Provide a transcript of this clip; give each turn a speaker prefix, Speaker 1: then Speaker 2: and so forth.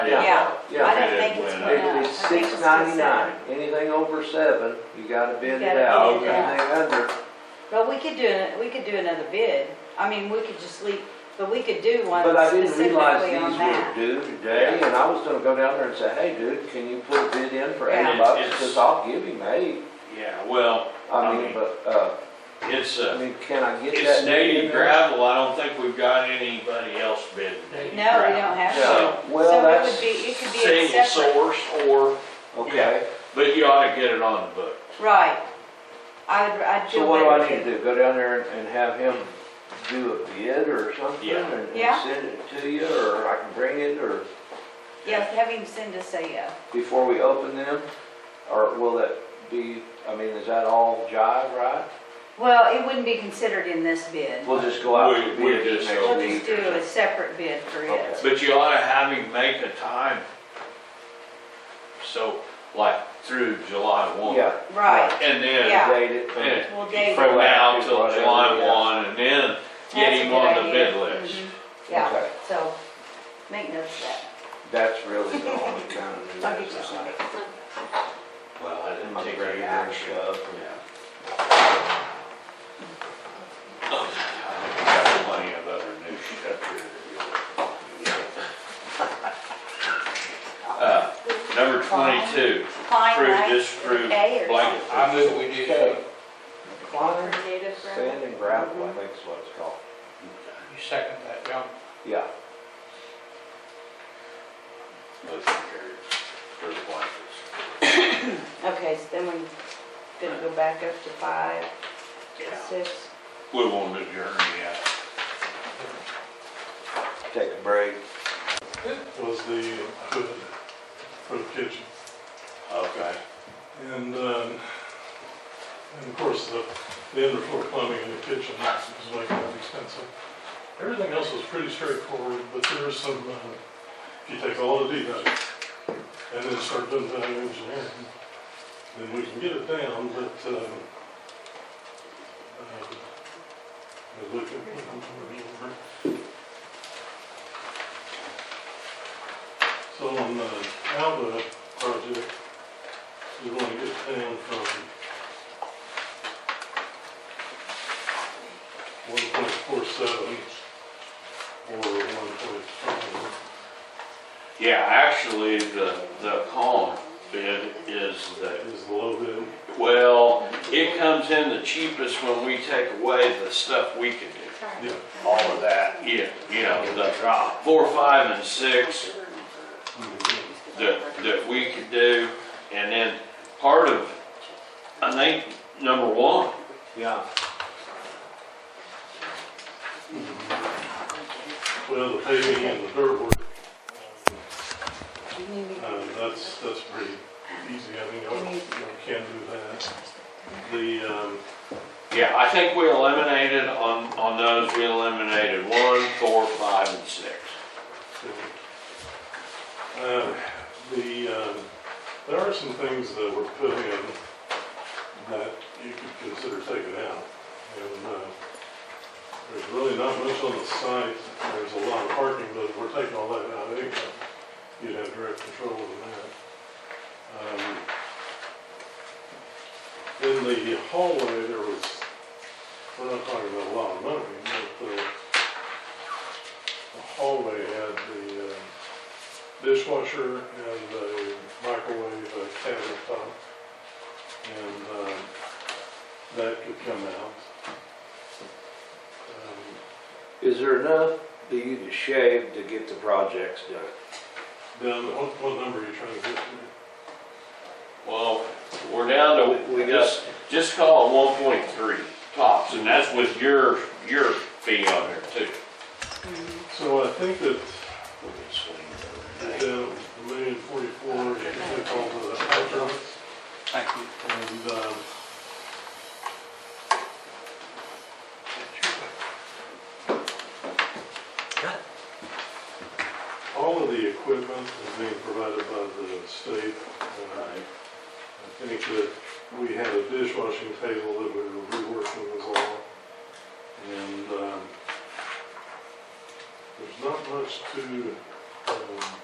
Speaker 1: Yeah.
Speaker 2: I
Speaker 1: Yeah,
Speaker 2: don't think it's
Speaker 3: It-
Speaker 2: went up.
Speaker 1: it, it's
Speaker 2: I think
Speaker 1: six
Speaker 2: it's still
Speaker 1: ninety-nine,
Speaker 2: seven.
Speaker 1: anything over seven, you gotta bid
Speaker 2: You
Speaker 1: it
Speaker 2: gotta
Speaker 1: out,
Speaker 3: bid it
Speaker 1: anything under,
Speaker 2: But we could do, an- we could do another bid. I mean, we could just leave, but we could do one
Speaker 1: But I didn't
Speaker 2: specifically
Speaker 1: realize
Speaker 2: on
Speaker 1: these were
Speaker 2: that.
Speaker 1: due today, and I was gonna go down there and say, hey, dude, can you put a bid in for eight
Speaker 2: Yeah.
Speaker 1: bucks?
Speaker 3: It's-
Speaker 1: Because I'll give him eight.
Speaker 3: Yeah, well,
Speaker 1: I
Speaker 3: I
Speaker 1: mean,
Speaker 3: mean-
Speaker 1: but, uh,
Speaker 3: it's
Speaker 1: I
Speaker 3: a,
Speaker 1: mean, can I get that?
Speaker 3: it's
Speaker 1: bid in
Speaker 3: native
Speaker 1: there?
Speaker 3: gravel, I don't think we've got anybody else bidding native
Speaker 2: No, we
Speaker 3: gravel.
Speaker 2: don't have
Speaker 1: Yeah,
Speaker 2: to.
Speaker 1: well,
Speaker 2: So it would be, it
Speaker 1: that's,
Speaker 2: could be a
Speaker 3: Single
Speaker 2: separate,
Speaker 3: source or,
Speaker 1: okay,
Speaker 3: but you ought to get it on the book.
Speaker 2: right. I'd, I'd
Speaker 1: so
Speaker 2: feel
Speaker 1: what do
Speaker 2: better.
Speaker 1: I need to do, go down there and- and have him do a bid or something?
Speaker 3: Yeah.
Speaker 1: and-
Speaker 2: Yeah.
Speaker 1: And send it to you, or I can bring it, or
Speaker 2: Yes, have him send us a, uh,
Speaker 1: before we open them? Or will that be, I mean, is that all jive, right?
Speaker 2: well, it wouldn't be considered in this bid.
Speaker 1: We'll just go out
Speaker 3: We-
Speaker 1: to
Speaker 3: we
Speaker 1: bid
Speaker 3: just
Speaker 1: next
Speaker 3: go-
Speaker 2: We'll
Speaker 1: week.
Speaker 2: just do a separate bid for
Speaker 1: Okay.
Speaker 2: it.
Speaker 3: But you ought to have him make a time. So, like, through July one.
Speaker 1: Yeah.
Speaker 2: Right,
Speaker 3: And
Speaker 2: Yeah.
Speaker 3: then,
Speaker 1: Date it.
Speaker 3: Yeah.
Speaker 2: well, Dave.
Speaker 3: from now
Speaker 1: Proactive,
Speaker 3: till
Speaker 1: whatever,
Speaker 3: July
Speaker 1: yeah.
Speaker 3: one, and then get
Speaker 2: that's a
Speaker 3: him
Speaker 2: good
Speaker 3: on the
Speaker 2: idea.
Speaker 3: bid list.
Speaker 2: Mhm. Yeah,
Speaker 1: Okay.
Speaker 2: so make notes of that.
Speaker 1: That's really the only kind of news
Speaker 2: I'll get you
Speaker 1: that's
Speaker 2: some.
Speaker 1: like,
Speaker 3: Well, I didn't
Speaker 1: My
Speaker 3: take
Speaker 1: great
Speaker 3: any
Speaker 1: action.
Speaker 3: action. Got plenty of other new shit up here. Uh, Number twenty-two,
Speaker 2: Fine,
Speaker 3: approve,
Speaker 2: right?
Speaker 3: disapprove,
Speaker 2: Okay, or-
Speaker 3: blanket.
Speaker 4: I move we do so.
Speaker 1: Okay. Kleiner
Speaker 2: Native ground.
Speaker 1: Sand and Gravel, I think is what it's called.
Speaker 4: You second that, John?
Speaker 1: Yeah.
Speaker 3: Motion carried for the blankets.
Speaker 2: Okay, so then we're gonna go back up to five,
Speaker 3: Yeah.
Speaker 2: six.
Speaker 3: We won't adjourn yet.
Speaker 1: Take a break.
Speaker 5: was the hood for the kitchen.
Speaker 3: Okay.
Speaker 5: And, um, and of course, the, the underfloor plumbing in the kitchen is like that expensive. Everything else was pretty straightforward, but there was some, uh, if you take all the details and then start doing value engineering, then we can get it down, but, um, um, we look at, So on the Alba project, you want to get it down from one point four seven or one point five.
Speaker 3: Yeah, actually, the, the column bid is the
Speaker 5: Is the low bid.
Speaker 3: Well, it comes in the cheapest when we take away the stuff we can do.
Speaker 5: Yeah,
Speaker 3: All of that. Yeah, you know, the four, five, and six that, that we could do. And then part of, I think, number one,
Speaker 1: Yeah.
Speaker 5: well, the paving and the dirt work, uh, that's, that's pretty easy, I mean, I can do that. The, um,
Speaker 3: yeah, I think we eliminated on, on those, we eliminated one, four, five, and six.
Speaker 5: Uh, The, um, there are some things that were put in that you could consider taking out. And uh, there's really not much on the site, there's a lot of parking, but if we're taking all that out anyway. You'd have direct control over that. Um, In the hallway, there was, we're not talking about a lot of money, but uh, the hallway had the uh, dishwasher and a microwave, a countertop. And um, that could come out. Um,
Speaker 1: Is there enough that you can shave to get the projects done?
Speaker 5: Down, what, what number are you trying to get to?
Speaker 3: Well, we're down to, we
Speaker 1: We got-
Speaker 3: just, just call it one point three tops, and that's with your, your fee on there too.
Speaker 5: So I think that
Speaker 3: We can swing it over.
Speaker 5: down a million forty-four, you can take all the hydrants.
Speaker 4: Thank you.
Speaker 5: And um, all of the equipment is being provided by the state. Uh, I think that we had a dishwashing table that we were reworking as well. And um, there's not much to um,